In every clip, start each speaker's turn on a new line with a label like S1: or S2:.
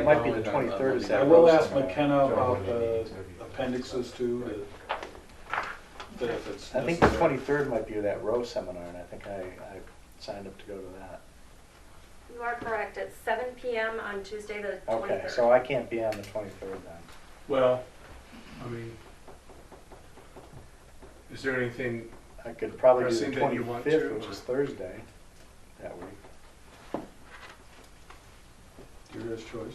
S1: It might be the twenty-third of
S2: I
S1: Saturday.
S2: will ask McKenna about the appendixes too, that- that if it's
S1: I think the
S2: necessary.
S1: twenty-third might be that row seminar, and I think I, I signed up to go to that.
S3: You are correct, it's seven PM on Tuesday, the
S1: Okay,
S3: twenty-third.
S1: so I can't be on the twenty-third then.
S4: Well, I mean, is there anything,
S1: I could probably do
S4: Pressing
S1: the
S4: that you want
S1: twenty-fifth,
S4: to,
S1: which
S4: or-
S1: is Thursday, that week.
S2: Your guys' choice.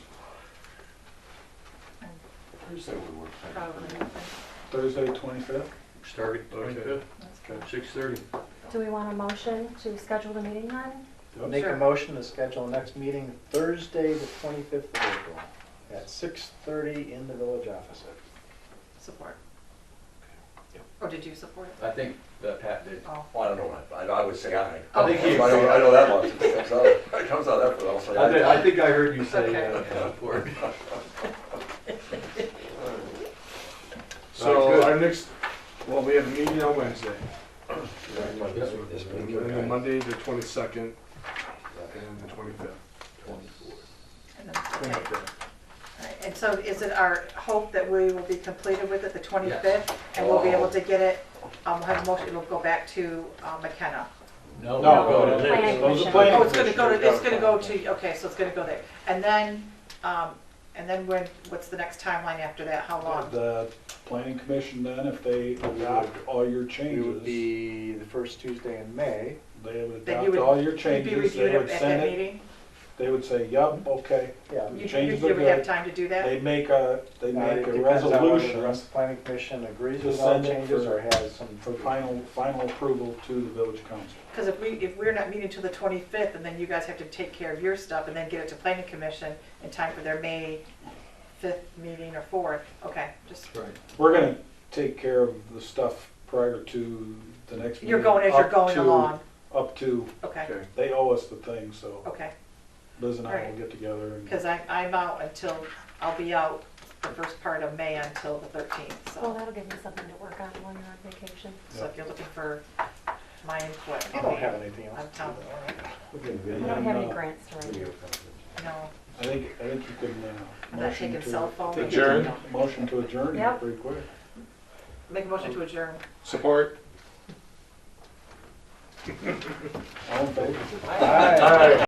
S5: Thursday would work. better for me.
S6: Probably.
S2: Thursday, twenty-fifth?
S7: Start at
S8: uh,
S4: okay,
S7: twenty-fifth, six thirty.
S3: Do we want a motion to schedule the meeting then?
S2: Oh,
S1: Make a motion to schedule next meeting Thursday, the twenty-fifth of April, at six-thirty in the village office.
S6: Support. Or did you support it?
S5: I think that Pat did.
S6: Oh.
S8: Well, I don't know, I, I would say aye.
S6: Oh.
S8: I think he, I know, I know that one, it comes out, it comes out after, I'll say
S7: I think, I
S8: aye.
S7: think I heard you say that.
S4: so
S7: Good.
S4: our next, well, we have a meeting on Wednesday,
S8: This one, this one.
S4: and then Monday, the twenty-second, and the twenty-fifth.
S6: And then- okay. All right. And so is it our hope that we will be completed with it the 25th? And we'll be
S2: Oh.
S6: able to get it, um, we'll have a motion, it'll go back to uh, McKenna.
S5: No,
S2: No,
S5: go
S2: no,
S5: to Liz.
S3: Planning
S2: Those are
S3: commission.
S2: planning
S6: Oh, it's gonna go to,
S2: commissioners.
S6: it's gonna go to, okay, so it's gonna go there. And then, um, and then when, what's the next timeline after that? How long?
S2: The planning commission then, if they adopt all your
S1: It would
S2: changes,
S1: be the first Tuesday in May,
S2: they would
S6: Then
S2: adopt
S6: you would-
S2: all your
S6: You'd be
S2: changes,
S6: reviewed
S2: they
S6: at
S2: would
S6: that
S2: send it,
S6: meeting?
S2: they would say, yep, okay.
S1: yeah.
S6: You you-
S2: Changes
S6: you
S2: are
S6: would have
S2: good.
S6: time to do that?
S2: They make a, they
S1: Uh,
S2: make
S1: it
S2: a
S1: depends on whether The
S2: resolution
S1: rest of the planning commission agrees
S2: to
S1: with all
S2: send it
S1: changes
S2: for-
S1: or has some.
S2: for final, final approval to the village council.
S6: Because if we, if we're not meeting till the 25th, and then you guys have to take care of your stuff and then get it to planning commission in time for their May 5th meeting or 4th, okay, just,
S7: Right.
S2: We're gonna take care of the stuff prior to the next meeting.
S6: you're going as you're
S2: up
S6: going
S2: to-
S6: along,
S2: Up to,
S6: okay,
S4: Okay.
S2: they owe us the thing, so
S6: okay.
S2: Liz and I will
S6: Alright.
S2: get together and,
S6: Because I, I'm out until, I'll be out the first part of May until the 13th,
S3: Well,
S6: so,
S3: Oh, that'll give me something to work on while you're on vacation.
S6: so if you're looking for my input.
S1: I don't have anything else.
S6: I'm telling
S3: I
S2: Yeah,
S3: don't have any
S2: no.
S3: grants to write.
S6: you, no,
S2: uh, I think, I think you can, uh.
S6: I'm not
S2: motion
S6: taking
S2: to-
S6: cell phone.
S2: take-
S4: Adjourn.
S2: Motion to adjourn
S6: Yep.
S2: pretty quick.
S6: Make a motion to adjourn.
S4: Support?
S2: All in favor?
S1: All right.